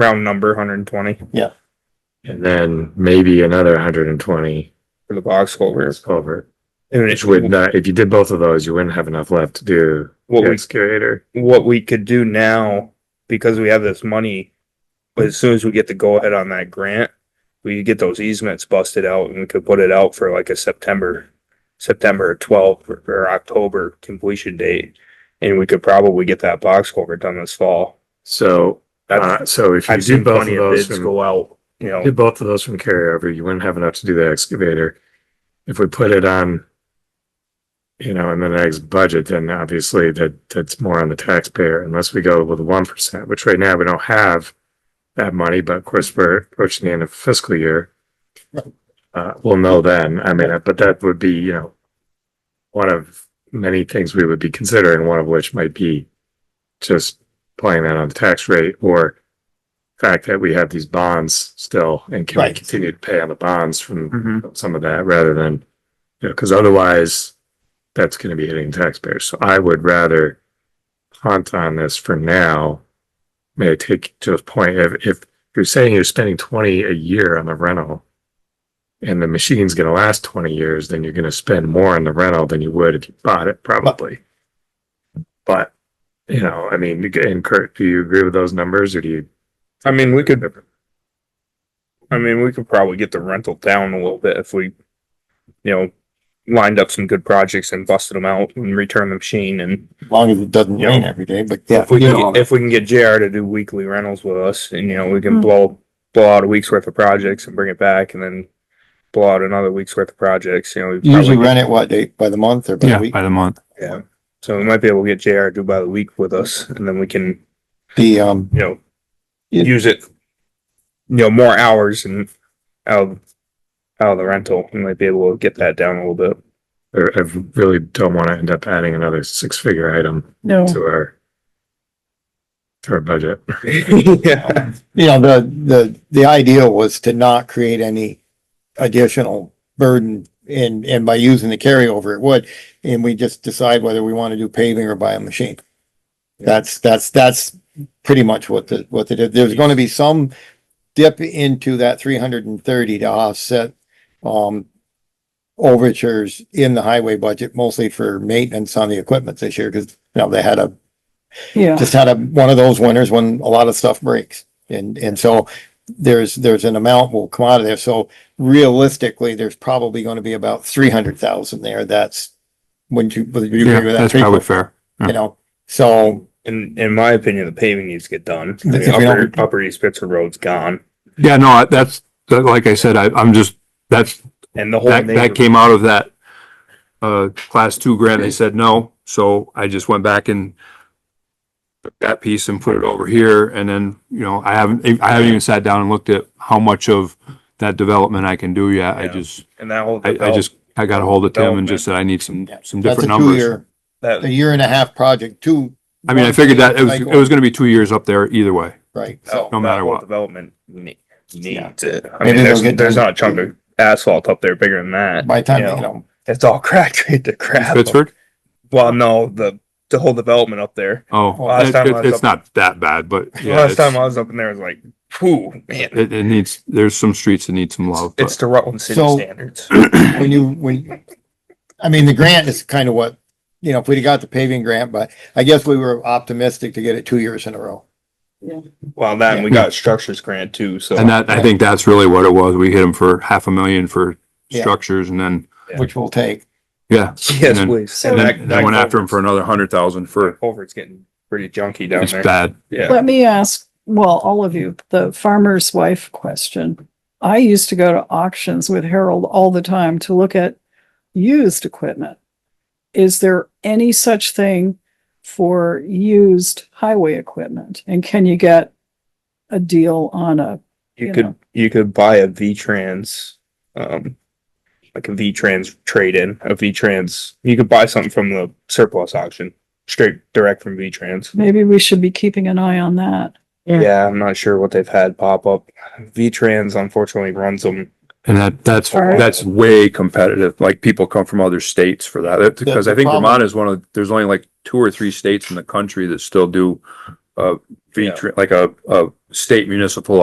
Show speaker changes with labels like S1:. S1: round number, hundred and twenty
S2: and then maybe another hundred and twenty
S1: for the box
S2: over
S1: culverts.
S2: culvert.
S1: And
S2: Which would
S1: it's
S2: not, if you did both of those, you wouldn't have enough left to do
S1: what
S2: the
S1: we,
S2: excavator.
S1: what we could do now, because we have this money. But as soon as we get the go ahead on that grant, we could get those easements busted out and we could put it out for like a September. September twelfth or- or October completion date, and we could probably get that box culvert done this fall.
S2: So, uh, so if you
S1: I've seen
S2: did both of
S1: plenty of
S2: those
S1: bids
S2: from,
S1: go out, you know,
S2: did both of those from carryover, you wouldn't have enough to do the excavator. If we put it on, you know, in the next budget, then obviously that, that's more on the taxpayer unless we go with one percent, which right now we don't have that money, but of course we're approaching the end of fiscal year. Uh, we'll know then. I mean, but that would be, you know, one of many things we would be considering, one of which might be just playing that on the tax rate or fact that we have these bonds still and can we
S3: Right.
S2: continue to pay on the bonds from some of that rather than, you know, because otherwise that's going to be hitting taxpayers. So I would rather punt on this for now. May I take Joe's point? If, if you're saying you're spending 20 a year on the rental and the machine's going to last 20 years, then you're going to spend more on the rental than you would if you bought it, probably. But, you know, I mean, and Kurt, do you agree with those numbers or do you?
S1: I mean, we could. I mean, we could probably get the rental down a little bit if we, you know, lined up some good projects and busted them out and returned the machine and.
S3: as long as it doesn't
S1: Yeah.
S3: rain every day, but yeah.
S1: If we, can get- if we can get JR to do weekly rentals with us and, you know, we can
S4: Hmm.
S1: blow, blow out a week's worth of projects and bring it back and then. Blow out another week's worth of projects, you know. we
S3: You Usually
S1: probably-
S3: rent it what, day- by the month or by the
S5: Yeah,
S3: week?
S5: by the month.
S1: Yeah, so we might be able to get JR to do by the week with us and then we can,
S3: The, um,
S1: you know.
S3: Yeah.
S1: Use it. You know, more hours and out, of- out of the rental, we might be able to get that down a little bit.
S2: Or I really don't want to end up adding another six figure item
S4: No.
S2: to our to our budget.
S1: Yeah,
S3: you know, the, the, the idea was to not create any additional burden and, and by using the carryover, it would, and we just decide whether we want to do paving or buy a machine. That's, that's, that's pretty much what the, what they did. There's going to be some dip into that three hundred and thirty to offset, um, overtures in the highway budget, mostly for maintenance on the equipment this year, because, you know, they had a
S4: Yeah,
S3: just had a, one of those winters when a lot of stuff breaks. And, and so there's, there's an amount will come out of there. So realistically, there's probably going to be about three hundred thousand there. That's when you, would you
S5: Yeah,
S3: agree with that?
S5: that's
S3: three
S5: probably
S3: quarter,
S5: fair.
S3: You know, so
S1: in, in my opinion, the paving needs to get done. I mean,
S3: If we don't-
S1: upper, upper East Pittsburgh Road's gone
S5: Yeah, no, I- that's, that- like I said, I, I'm just, that's,
S1: and the whole.
S5: that, that
S1: neighborhood-
S5: came out of that, uh, class two grant. They said no, so I just went back and took that piece and put it over here. And then, you know, I haven't, I haven't even sat down and looked at how much of that development I can do yet. I
S1: Yeah.
S5: just,
S1: And that whole.
S5: I, I just, I got a hold of Tim and just said, I need some,
S3: Yeah.
S5: some
S3: that's a
S5: different numbers.
S3: two-year, a
S1: That,
S3: year and a half project, two.
S5: I mean, I figured that it was,
S3: cycle,
S5: it was Oh. gonna be two years up there either way.
S3: Right,
S1: that
S3: so,
S5: no
S1: that
S5: matter
S1: whole
S5: what.
S1: Development ne-
S3: Yeah.
S1: needs it. I mean,
S3: Maybe they'll
S1: there's,
S3: get
S1: there's
S3: done.
S1: not a chunk of asphalt up there bigger than that.
S3: by the time,
S1: Yeah.
S3: you know,
S1: It's all cracked right to crap.
S5: Pittsburgh?
S1: Well, no, the, the whole development up there.
S5: Oh,
S3: Last
S5: it-
S1: time I
S5: it-
S1: was
S5: it's
S1: up-
S5: not that bad, but yeah.
S1: Last
S5: it's-
S1: time I was up in there, it was like, whew, man,
S5: It, it needs, there's some streets that need some love. but-
S1: it's the Rutland City
S3: So-
S1: standards.
S3: when you, when, I mean, the grant is kind of what, you know, if we'd got the paving grant, but I guess we were optimistic to get it two years in a row.
S1: Well, that, and we got structures grant too, so.
S5: And that, I think that's really what it was. We hit them for half a million for
S3: Yeah.
S5: structures and then,
S3: which will take.
S5: yeah.
S1: Yes,
S5: and then-
S1: please.
S4: and
S5: And
S1: that-
S5: then,
S1: that
S5: then went after
S1: culvert's-
S5: them for another hundred thousand for,
S1: Culvert's getting pretty junky down
S5: it's
S1: there.
S5: bad.
S1: Yeah.
S4: let me ask, well, all of you, the farmer's wife question. I used to go to auctions with Harold all the time to look at used equipment. Is there any such thing for used highway equipment? And can you get a deal on a,
S1: You
S4: you
S1: could,
S4: know.
S1: you could buy a V-Trans, um, like a V-Trans trade-in, a V-Trans. You could buy something from the surplus auction, straight direct from V-Trans.
S4: maybe we should be keeping an eye on that.
S2: Yeah.
S1: Yeah, I'm not sure what they've had pop up. V-Trans unfortunately runs them.
S5: And that, that's,
S4: All right.
S5: that's way competitive. Like people come from other states for that. Because
S3: The-
S5: I
S3: the
S5: think
S3: problem-
S5: Vermont is one of, there's only like two or three states in the country that still do uh, a, feature- like a, a state municipal